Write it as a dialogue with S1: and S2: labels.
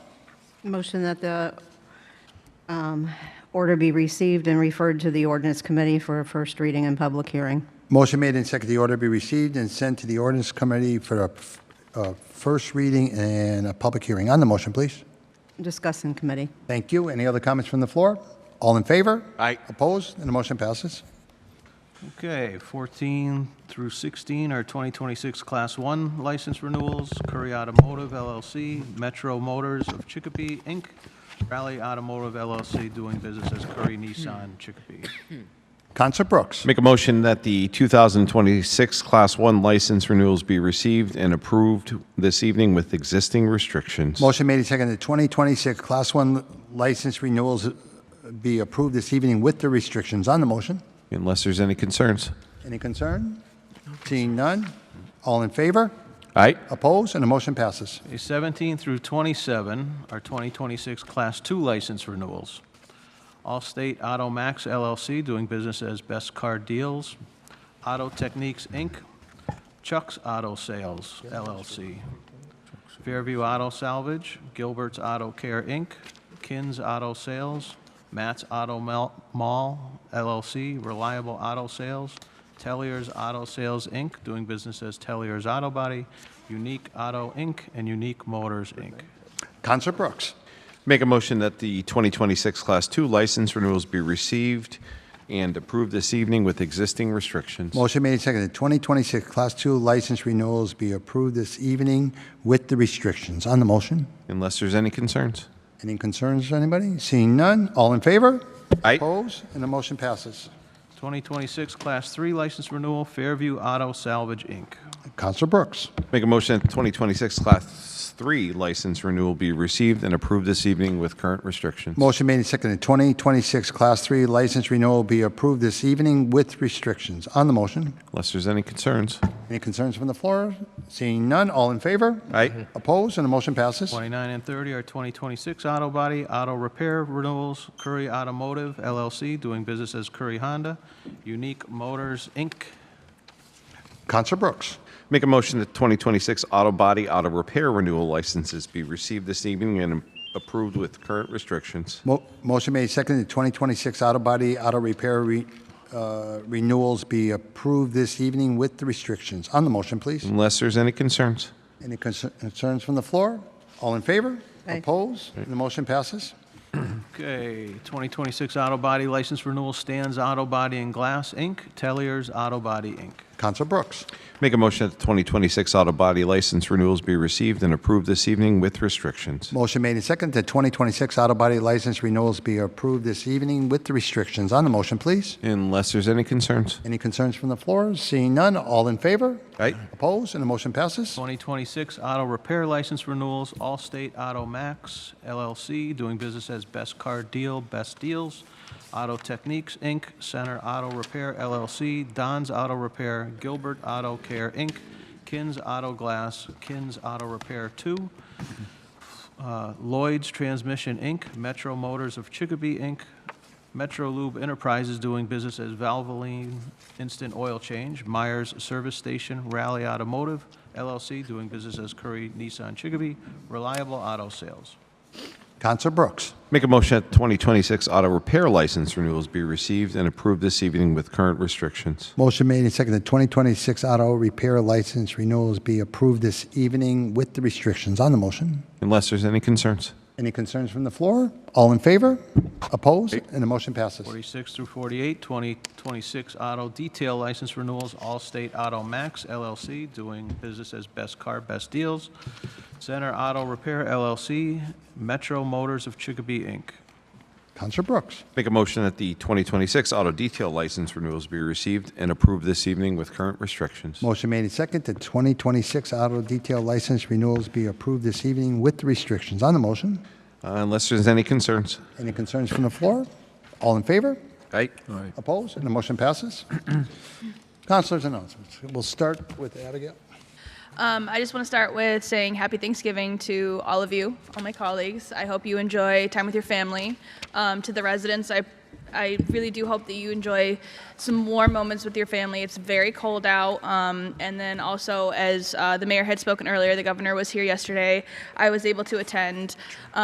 S1: Motion that the um, order be received and referred to the ordinance committee for a first reading and public hearing.
S2: Motion made and seconded, the order be received and sent to the ordinance committee for a f- a first reading and a public hearing. On the motion, please.
S1: Discuss in committee.
S2: Thank you. Any other comments from the floor? All in favor?
S3: Aye.
S2: Opposed? And the motion passes.
S4: Okay, 14 through 16 are 2026 Class 1 license renewals, Curry Automotive LLC, Metro Motors of Chicopee, Inc., Raleigh Automotive LLC, doing business as Curry Nissan Chicopee.
S2: Counselor Brooks.
S3: Make a motion that the 2026 Class 1 license renewals be received and approved this evening with existing restrictions.
S2: Motion made and seconded, 2026 Class 1 license renewals be approved this evening with the restrictions. On the motion,
S3: Unless there's any concerns.
S2: any concern? Seeing none? All in favor?
S3: Aye.
S2: Opposed? And the motion passes.
S4: Okay, 17 through 27 are 2026 Class 2 license renewals, Allstate Auto Max LLC, doing business as Best Car Deals, Auto Techniques, Inc., Chuck's Auto Sales LLC, Fairview Auto Salvage, Gilbert's Auto Care, Inc., Kins Auto Sales, Matt's Auto Mel- Mall LLC, Reliable Auto Sales, Tellier's Auto Sales, Inc., doing business as Tellier's Auto Body, Unique Auto, Inc., and Unique Motors, Inc.
S2: Counselor Brooks.
S3: Make a motion that the 2026 Class 2 license renewals be received and approved this evening with existing restrictions.
S2: Motion made and seconded, 2026 Class 2 license renewals be approved this evening with the restrictions. On the motion,
S3: Unless there's any concerns.
S2: any concerns, anybody? Seeing none, all in favor?
S3: Aye.
S2: Opposed, and the motion passes.
S4: 2026 Class 3 license renewal, Fairview Auto Salvage, Inc.
S2: Counselor Brooks.
S3: Make a motion that the 2026 Class 3 license renewal be received and approved this evening with current restrictions.
S2: Motion made and seconded, 2026 Class 3 license renewal be approved this evening with restrictions. On the motion,
S3: Unless there's any concerns.
S2: any concerns from the floor? Seeing none, all in favor?
S3: Aye.
S2: Opposed, and the motion passes.
S4: 29 and 30 are 2026 auto body, auto repair renewals, Curry Automotive LLC, doing business as Curry Honda, Unique Motors, Inc.
S2: Counselor Brooks.
S3: Make a motion that 2026 auto body auto repair renewal licenses be received this evening and approved with current restrictions.
S2: Mo- Motion made, seconded, 2026 auto body, auto repair re- uh, renewals be approved this evening with the restrictions. On the motion, please.
S3: Unless there's any concerns.
S2: Any concer- concerns from the floor? All in favor?
S1: Aye.
S2: Opposed? The motion passes.
S4: Okay, 2026 auto body license renewal, Stan's Auto Body and Glass, Inc., Tellier's Auto Body, Inc.
S2: Counselor Brooks.
S3: Make a motion that the 2026 auto body license renewals be received and approved this evening with restrictions.
S2: Motion made, and seconded, that 2026 auto body license renewals be approved this evening with the restrictions. On the motion, please.
S3: Unless there's any concerns.
S2: Any concerns from the floor? Seeing none, all in favor?
S3: Aye.
S2: Opposed? And the motion passes.
S4: 2026 auto repair license renewals, Allstate Auto Max LLC, doing business as Best Car Deal, Best Deals, Auto Techniques, Inc., Center Auto Repair LLC, Don's Auto Repair, Gilbert Auto Care, Inc., Kins Auto Glass, Kins Auto Repair 2, uh, Lloyd's Transmission, Inc., Metro Motors of Chicopee, Inc., Metro Lube Enterprises doing business as Valvoline Instant Oil Change, Myers Service Station, Raleigh Automotive LLC doing business as Curry Nissan Chicopee, Reliable Auto Sales.
S2: Counselor Brooks.
S3: Make a motion that the 2026 auto repair license renewals be received and approved this evening with current restrictions.
S2: Motion made and seconded, 2026 auto repair license renewals be approved this evening with the restrictions on the motion.
S3: Unless there's any concerns.
S2: Any concerns from the floor? All in favor? Opposed? And the motion passes.
S4: 46 through 48, 2026 auto detail license renewals, Allstate Auto Max LLC, doing business as Best Car, Best Deals, Center Auto Repair LLC, Metro Motors of Chicopee, Inc.
S2: Counselor Brooks.
S3: Make a motion that the 2026 auto detail license renewals be received and approved this evening with current restrictions.
S2: Motion made and seconded, 2026 auto detail license renewals be approved this evening with the restrictions on the motion.
S3: Uh, Unless there's any concerns.
S2: Any concerns from the floor? All in favor?
S3: Aye.
S2: Opposed? And the motion passes. Counselors' announcements. We'll start with Abigail.
S5: Um, I just want to start with saying happy Thanksgiving to all of you, all my colleagues. I hope you enjoy time with your family. Um, to the residents, I, I really do hope that you enjoy some warm moments with your family. It's very cold out. Um, and then also, as uh, the mayor had spoken earlier, the governor was here yesterday. I was able to attend.